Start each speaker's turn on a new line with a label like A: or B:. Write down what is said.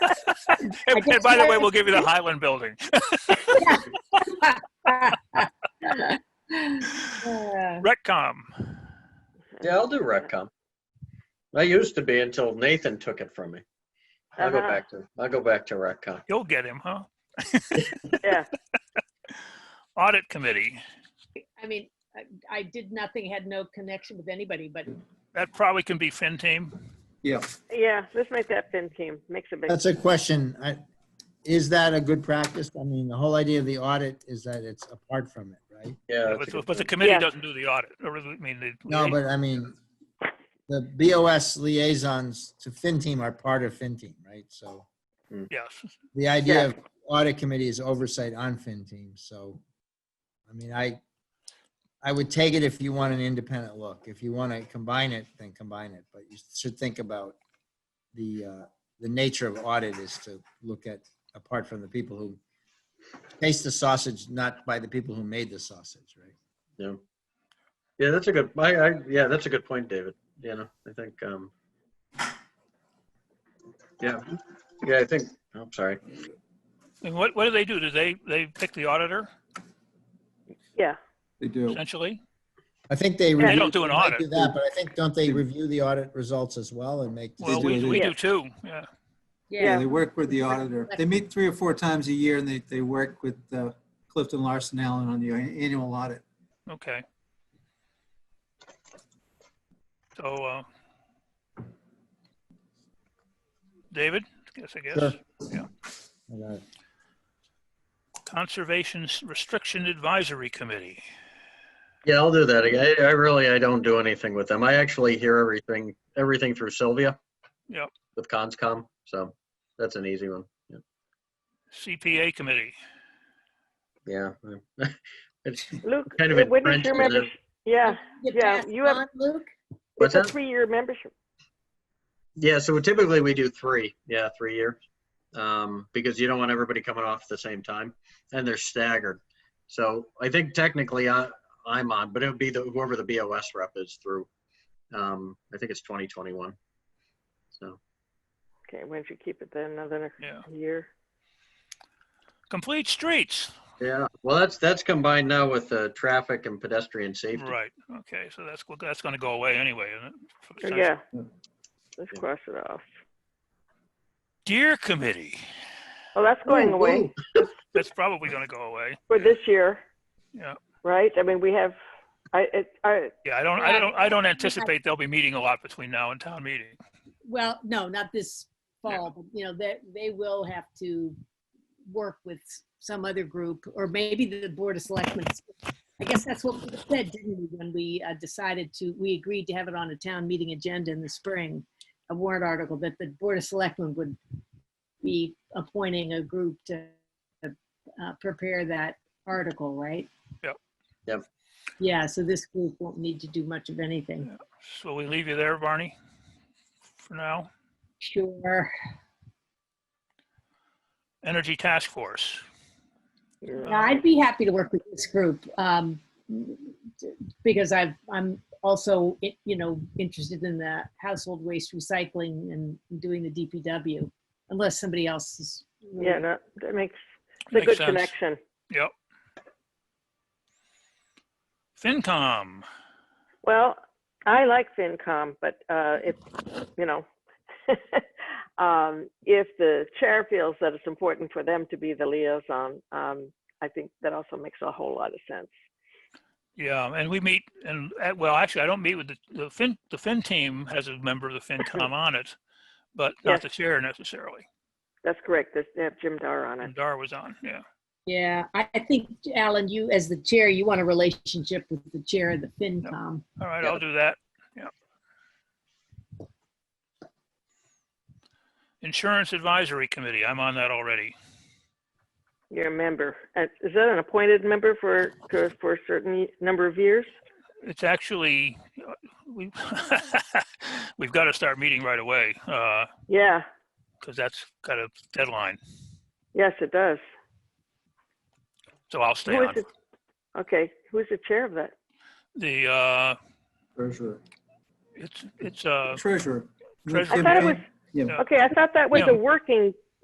A: and, and by the way, we'll give you the Highland Building.
B: Uh,
A: Retcom.
C: Yeah, I'll do Repcom. I used to be until Nathan took it from me. I'll go
B: Uh-huh.
C: back to, I'll go back to Repcom.
A: You'll get him, huh?
B: Yeah.
A: Audit Committee.
D: I mean, I- I did nothing, had no connection with anybody, but
A: That probably can be Fin Team.
E: Yeah,
B: Yeah, let's make that fin team. Makes a big.
E: that's a question. I- Is that a good practice? I mean, the whole idea of the audit is that it's apart from it, right?
C: Yeah. that's a
A: But
C: good
A: but the
C: point.
A: committee
B: Yeah.
A: doesn't do the audit, or I mean, the.
E: No, but I mean, the BOS liaisons to FinTeam are part of FinTeam, right? So
A: Yes,
E: the idea of audit committee is oversight on FinTeam. so. I mean, I, I would take it if you want an independent look. If you want to combine it, then combine it, but you should think about the, uh, the nature of audit is to look at, apart from the people who taste the sausage, not by the people who made the sausage, right?
C: Yeah. Yeah, that's a good, I, I, yeah, that's a good point, David. You know, I think, um, yeah, yeah, I think, oh, I'm sorry.
A: and what, what do they do? Do they, they pick the auditor
B: Yeah.
F: They do.
A: essentially?
E: I think they.
B: They
E: review-
A: don't do an
E: they might
A: audit.
E: Do that, but I think, don't they review the audit results as well and make?
A: Well,
F: do,
A: we,
F: they
A: we
B: do.
A: do too, yeah.
F: Yeah,
D: yeah,
F: they work with the auditor. They meet three or four times a year and they, they work with uh, Clifton Larson Allen on the annual audit.
A: Okay. So, uh, David, guess, I guess,
E: Sure.
A: Conservation Restriction Advisory Committee.
C: Yeah, I'll do that. I, I really, I don't do anything with them. I actually hear everything, everything through Sylvia.
A: Yep.
C: With Conscom, so that's an easy one. Yeah.
A: CPA Committee.
C: Yeah. It's,
B: Luke,
C: Kind of
B: when is
C: entrenched
B: your
C: in it.
B: membership? Yeah,
D: Get
B: Yeah,
D: passed
B: you have-
D: on, Luke?
C: What's
B: it's a
C: that?
B: three-year membership.
C: yeah, so typically we do three, yeah, three years. Um, because you don't want everybody coming off at the same time and they're staggered. So I think technically I, I'm on, but it would be the, whoever the BOS rep is through. Um, I think it's 2021. So,
B: Okay, why don't you keep it then another
A: Yeah.
B: year?
A: Complete Streets.
C: yeah, well, that's, that's combined now with, uh, traffic and pedestrian safety.
A: Right. Okay. So that's that's going to go away anyway, isn't it? For the
B: Oh, Yeah.
F: Yeah.
B: Let's
C: Yeah.
B: cross it off.
A: Deer Committee.
B: Oh, that's going away
A: That's probably going to go away.
B: for this year.
A: Yeah.
B: Right? I mean, we have, I, it, I,
A: Yeah. I don't. I don't. I don't anticipate they'll be meeting a lot between now and town meeting.
D: Well, no, not this fall, but you know, that they will have to work with some other group or maybe the Board of Selectmen. I guess that's what we said, didn't we, when we uh, decided to, we agreed to have it on a town meeting agenda in the spring, a warrant article that the Board of Selectmen would be appointing a group to uh, prepare that article, right?
A: Yep.
C: Yep.
D: Yeah, so this group won't need to do much of anything.
A: So we leave you there, Barney, for now.
D: Sure.
A: Energy Task Force. Uh,
D: Yeah, I'd be happy to work with this group, um, because I've, I'm also, i- you know, interested in the household waste recycling and doing the DPW, unless somebody else is. really-
C: Mm-hmm.
B: yeah, no, that makes, it's
A: Makes
B: a good
A: sense.
B: connection.
A: Yep. FinCom.
B: Well, I like FinCom, but uh, if, you know, um, if the chair feels that it's important for them to be the liaison, um, I think that also makes a whole lot of sense.
A: Yeah, and we meet, and uh, well, actually, I don't meet with the, the Fin. The Fin team has a member of the FinCom on it, but not
B: Yes.
A: the chair necessarily.
B: That's correct. There's, they have Jim Dar on it.
A: And Dar was on. Yeah.
D: Yeah, I, I think, Alan, you, as the chair, you want a relationship with the chair of the FinCom.
A: All right,
C: Yeah.
A: I'll do that. Yeah. Insurance Advisory Committee. I'm on that already.
B: You're a member. Uh, Is that an appointed member for, for- for a certain number of years?
A: It's actually uh, we we've got to start meeting right away because
B: Yeah,
A: that's got a deadline.
B: yes, it does.
A: So I'll stay
B: Who is
A: on.
B: it? Okay, who's the chair of that?
A: The uh,
F: Treasurer.
A: it's uh, it's uh
F: Treasurer.
A: Treasurer.
B: I thought it was-
F: Yeah.
A: Yeah.
B: Okay, I thought that was
A: Yeah.
B: a working